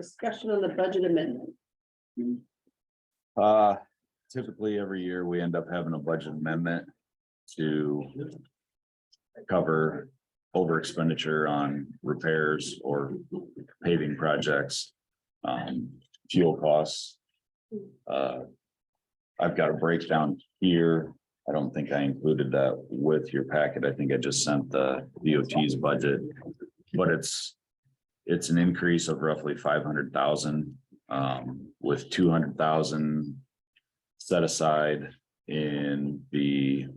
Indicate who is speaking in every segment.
Speaker 1: discussion on the budget amendment.
Speaker 2: Uh, typically every year we end up having a budget amendment to cover over expenditure on repairs or paving projects, um, fuel costs. Uh, I've got a breakdown here. I don't think I included that with your packet. I think I just sent the DOT's budget. But it's, it's an increase of roughly five hundred thousand um, with two hundred thousand set aside in the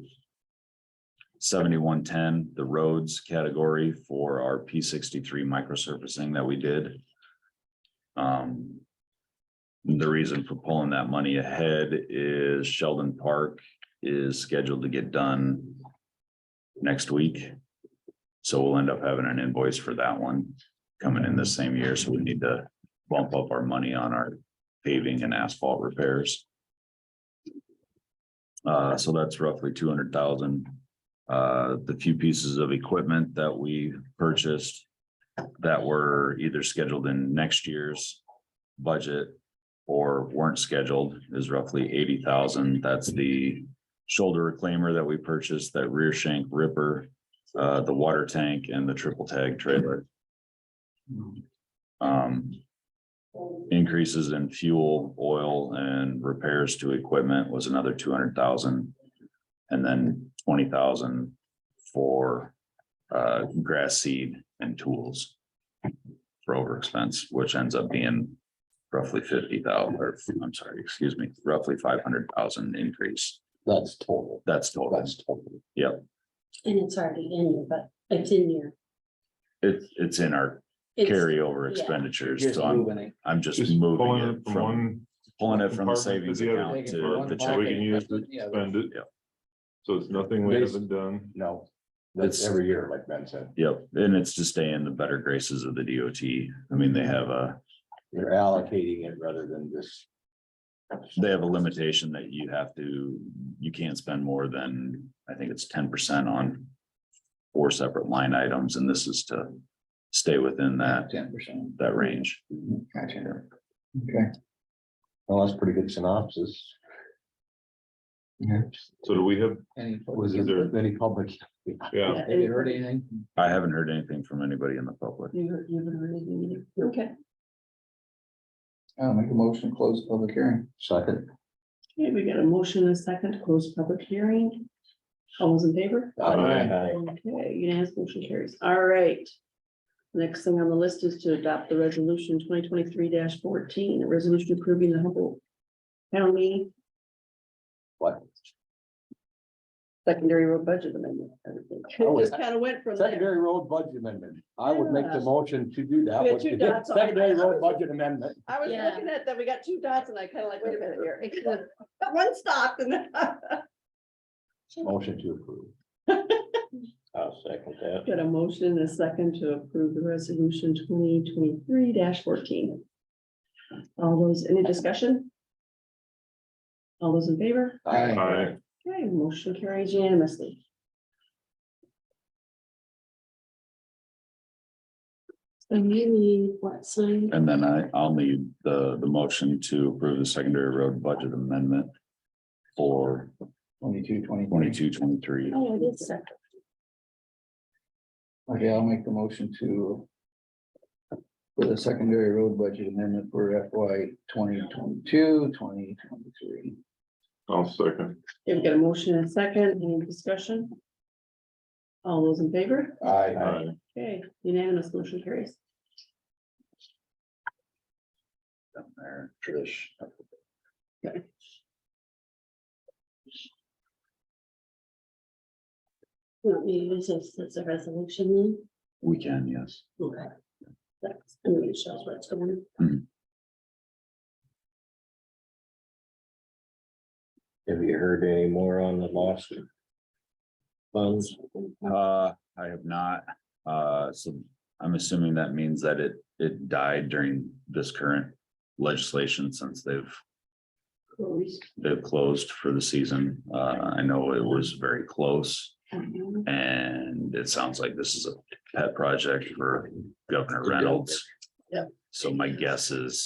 Speaker 2: seventy-one ten, the roads category for our P sixty-three microsurfacing that we did. Um, the reason for pulling that money ahead is Sheldon Park is scheduled to get done next week. So we'll end up having an invoice for that one coming in this same year, so we need to bump up our money on our paving and asphalt repairs. Uh, so that's roughly two hundred thousand. Uh, the few pieces of equipment that we purchased that were either scheduled in next year's budget or weren't scheduled is roughly eighty thousand. That's the shoulder reclaimer that we purchased, that rear shank ripper, uh, the water tank and the triple tag trailer. Um, increases in fuel, oil and repairs to equipment was another two hundred thousand. And then twenty thousand for uh grass seed and tools. For over expense, which ends up being roughly fifty thousand, or I'm sorry, excuse me, roughly five hundred thousand increase.
Speaker 3: That's total,
Speaker 2: That's total.
Speaker 3: that's total.
Speaker 1: And it's already in here, but it's in here.
Speaker 2: It's it's in our
Speaker 1: It's-
Speaker 2: carryover
Speaker 1: yeah.
Speaker 2: expenditures,
Speaker 3: Just
Speaker 2: so I'm
Speaker 3: moving it.
Speaker 2: I'm just
Speaker 4: Just
Speaker 2: moving
Speaker 4: pulling it
Speaker 2: it
Speaker 4: from
Speaker 2: from
Speaker 4: one,
Speaker 2: pulling it from the
Speaker 4: compartment
Speaker 2: savings
Speaker 4: to the other.
Speaker 2: account
Speaker 3: Taking it from
Speaker 2: to
Speaker 3: one
Speaker 2: the
Speaker 4: so
Speaker 2: check.
Speaker 3: pocket
Speaker 4: we can
Speaker 3: and
Speaker 4: use
Speaker 3: put
Speaker 4: it,
Speaker 3: it in the other.
Speaker 4: spend it.
Speaker 2: Yeah.
Speaker 4: So it's nothing we
Speaker 3: Basi-
Speaker 4: haven't done.
Speaker 3: No, that's
Speaker 2: It's-
Speaker 3: every year, like Ben said,
Speaker 2: Yep, and it's to stay in the better graces of the DOT. I mean, they have a,
Speaker 3: you're allocating it rather than just.
Speaker 2: they have a limitation that you have to, you can't spend more than, I think it's ten percent on four separate line items, and this is to stay within that,
Speaker 3: Ten percent.
Speaker 2: that range.
Speaker 3: Gotcha. Okay. Well, that's pretty good synopsis.
Speaker 4: So do we have,
Speaker 3: Any, was
Speaker 4: Is there-
Speaker 3: there any public?
Speaker 4: yeah,
Speaker 1: Yeah, and-
Speaker 3: heard anything?
Speaker 2: I haven't heard anything from anybody in the public.
Speaker 1: You heard- you haven't heard anything either? Okay,
Speaker 3: I'll make a motion to close public hearing. Second.
Speaker 1: okay, we got a motion and a second to close public hearing. All those in favor? Okay, unanimous motion carries. All right. Next thing on the list is to adopt the resolution twenty twenty-three fourteen, a resolution approving the Humboldt County.
Speaker 3: What?
Speaker 1: Secondary road budget amendment. everything.
Speaker 3: Oh,
Speaker 1: It just kind of went from there.
Speaker 3: Secondary road budget amendment. I would make the
Speaker 1: Yeah.
Speaker 3: motion to do that.
Speaker 1: We had
Speaker 3: with
Speaker 1: two
Speaker 3: the
Speaker 1: dots on it.
Speaker 3: Secondary road budget amendment.
Speaker 1: I was
Speaker 5: Yeah.
Speaker 1: looking at that, we got two dots and I kind of like, wait a minute here. One stopped and then.
Speaker 3: Motion to approve. I'll second that.
Speaker 1: Got a motion and a second to approve the resolution twenty twenty-three fourteen. All those, any discussion? All those in favor?
Speaker 4: Aye.
Speaker 1: Okay, motion carries unanimously.
Speaker 5: So you need what sign?
Speaker 2: And then I, I'll need the, the motion to approve the secondary road budget amendment for
Speaker 6: Twenty-two, twenty-three.
Speaker 2: twenty-two, twenty-three.
Speaker 5: Oh, it is separate.
Speaker 6: Okay, I'll make the motion to. For the secondary road budget amendment for FY 2022, 2023.
Speaker 4: I'll second.
Speaker 1: Okay, We've got a motion and a second, any discussion? All those in favor?
Speaker 3: Aye.
Speaker 4: Aye.
Speaker 1: Okay, unanimous motion carries.
Speaker 2: down there, Trish.
Speaker 5: You don't need to use this as a resolution then?
Speaker 2: We can, yes.
Speaker 5: Okay. That's, I mean, it shows where it's going.
Speaker 3: Have you heard any more on the lawsuit? Funds?
Speaker 2: Uh, I have not, uh, so I'm assuming that means that it, it died during this current legislation since they've, they've closed for the season. Uh, I know it was very close and it sounds like this is a pet project for Governor Reynolds.
Speaker 1: Yep.
Speaker 2: So my guess is